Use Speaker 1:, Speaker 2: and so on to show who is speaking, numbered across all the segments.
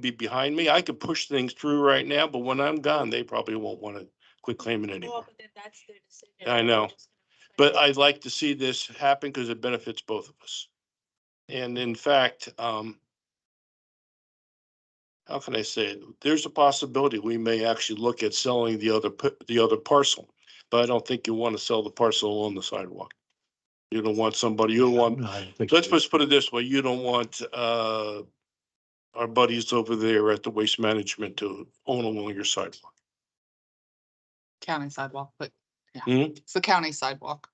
Speaker 1: be behind me. I could push things through right now, but when I'm gone, they probably won't want to quit claiming
Speaker 2: Well,
Speaker 1: anymore.
Speaker 2: but then that's their decision.
Speaker 1: I know.
Speaker 2: They're just gonna
Speaker 1: But
Speaker 2: Um, try
Speaker 1: I'd like to see this happen because it benefits both of us. And in fact, um, how can I say it? There's a possibility we may actually look at selling the other, p- the other parcel. But I don't think you want to sell the parcel along the sidewalk. You don't want somebody, you don't want, let's just put it this way, you don't want, uh, our buddies over there at the Waste Management to own along your sidewalk.
Speaker 3: County sidewalk, but
Speaker 1: Hmm?
Speaker 3: yeah, it's the county sidewalk.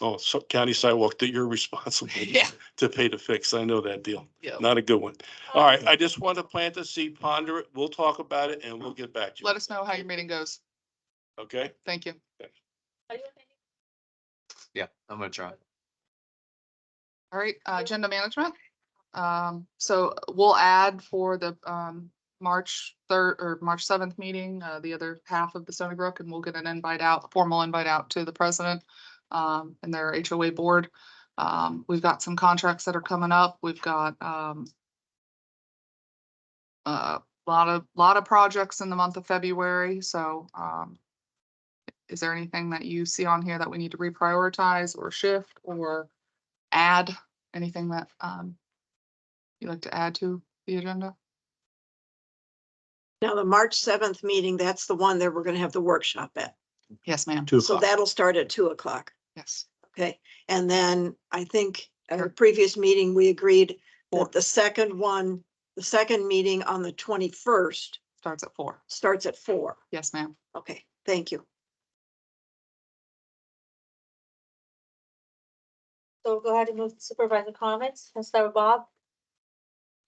Speaker 1: Oh, so county sidewalk that you're responsible
Speaker 3: Yeah. Oh.
Speaker 1: to pay to fix. I know that deal.
Speaker 3: Yeah.
Speaker 1: Not a good one.
Speaker 2: to-
Speaker 1: All right, I just want to plant the seed, ponder it. We'll talk about it and we'll get back to
Speaker 3: Let
Speaker 1: you.
Speaker 3: us know how your meeting goes.
Speaker 1: Okay?
Speaker 3: Thank you.
Speaker 2: Are you okay?
Speaker 4: Yeah, I'm gonna try.
Speaker 3: All right, uh, agenda management. Um, so we'll add for the, um, March third or March seventh meeting, uh, the other half of the Stony Brook and we'll get an invite out, a formal invite out to the president, um, and their HOA board. Um, we've got some contracts that are coming up. We've got, um, a lot of, lot of projects in the month of February, so, um, is there anything that you see on here that we need to reprioritize or shift or add anything that um you'd like to add to the agenda?
Speaker 5: Now, the March seventh meeting, that's the one that we're gonna have the workshop at.
Speaker 3: Yes, ma'am.
Speaker 4: Two
Speaker 5: So
Speaker 4: o'clock.
Speaker 5: that'll start at two o'clock,
Speaker 3: Yes.
Speaker 5: okay? And then I think at
Speaker 3: Sure.
Speaker 5: our previous meeting, we agreed
Speaker 3: Four.
Speaker 5: that the second one, the second meeting on the twenty-first
Speaker 3: Starts at four.
Speaker 5: starts at four.
Speaker 3: Yes, ma'am.
Speaker 5: Okay, thank you.
Speaker 2: So go ahead and move to supervisor comments. Let's start with Bob.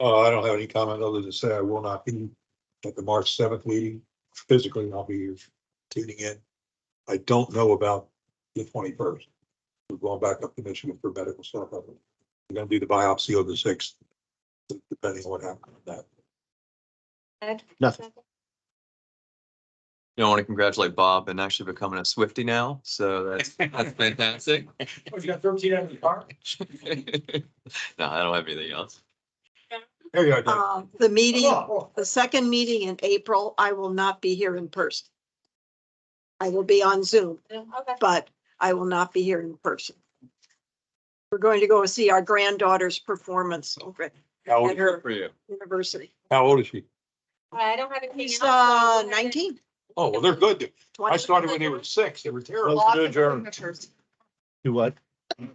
Speaker 6: Uh, I don't have any comment other than to say I will not be at the March seventh meeting. Physically, I'll be here tuning in. I don't know about the twenty-first. We're going back up to Michigan for medical stuff. We're gonna do the biopsy on the sixth, depending on what happens with that.
Speaker 2: Ed?
Speaker 4: Nothing. You know, I want to congratulate Bob and actually becoming a Swifty now, so that's, that's fantastic.
Speaker 7: Oh, you got thirteen out of the car?
Speaker 4: No, I don't have anything else.
Speaker 6: There you are. Dave.
Speaker 5: Uh, the meeting,
Speaker 7: Oh,
Speaker 5: the second meeting in April, I will not be here in person. I will be on Zoom,
Speaker 2: Okay.
Speaker 5: but I will not be here in person. We're going to go see our granddaughter's performance over at
Speaker 4: Oh,
Speaker 6: How old,
Speaker 5: at her
Speaker 4: For you.
Speaker 5: university.
Speaker 6: how old is she?
Speaker 2: All right, I don't have anything. else,
Speaker 5: He's
Speaker 2: so I'll
Speaker 5: uh
Speaker 2: go ahead and-
Speaker 5: nineteen.
Speaker 6: Oh, well, they're good. I
Speaker 5: 20.
Speaker 6: started when they were six. They were terrible.
Speaker 3: Lots
Speaker 6: Good
Speaker 3: of
Speaker 6: job.
Speaker 3: signatures.
Speaker 8: Do what?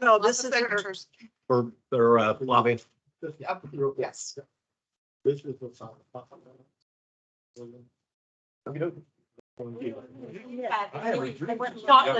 Speaker 5: No,
Speaker 3: Lots
Speaker 5: this
Speaker 3: of
Speaker 5: is her.
Speaker 3: signatures.
Speaker 8: For their uh, lobby?
Speaker 3: Yep. Yes.
Speaker 2: Yeah,
Speaker 6: I have a
Speaker 2: I
Speaker 6: dream.
Speaker 2: went chocolate.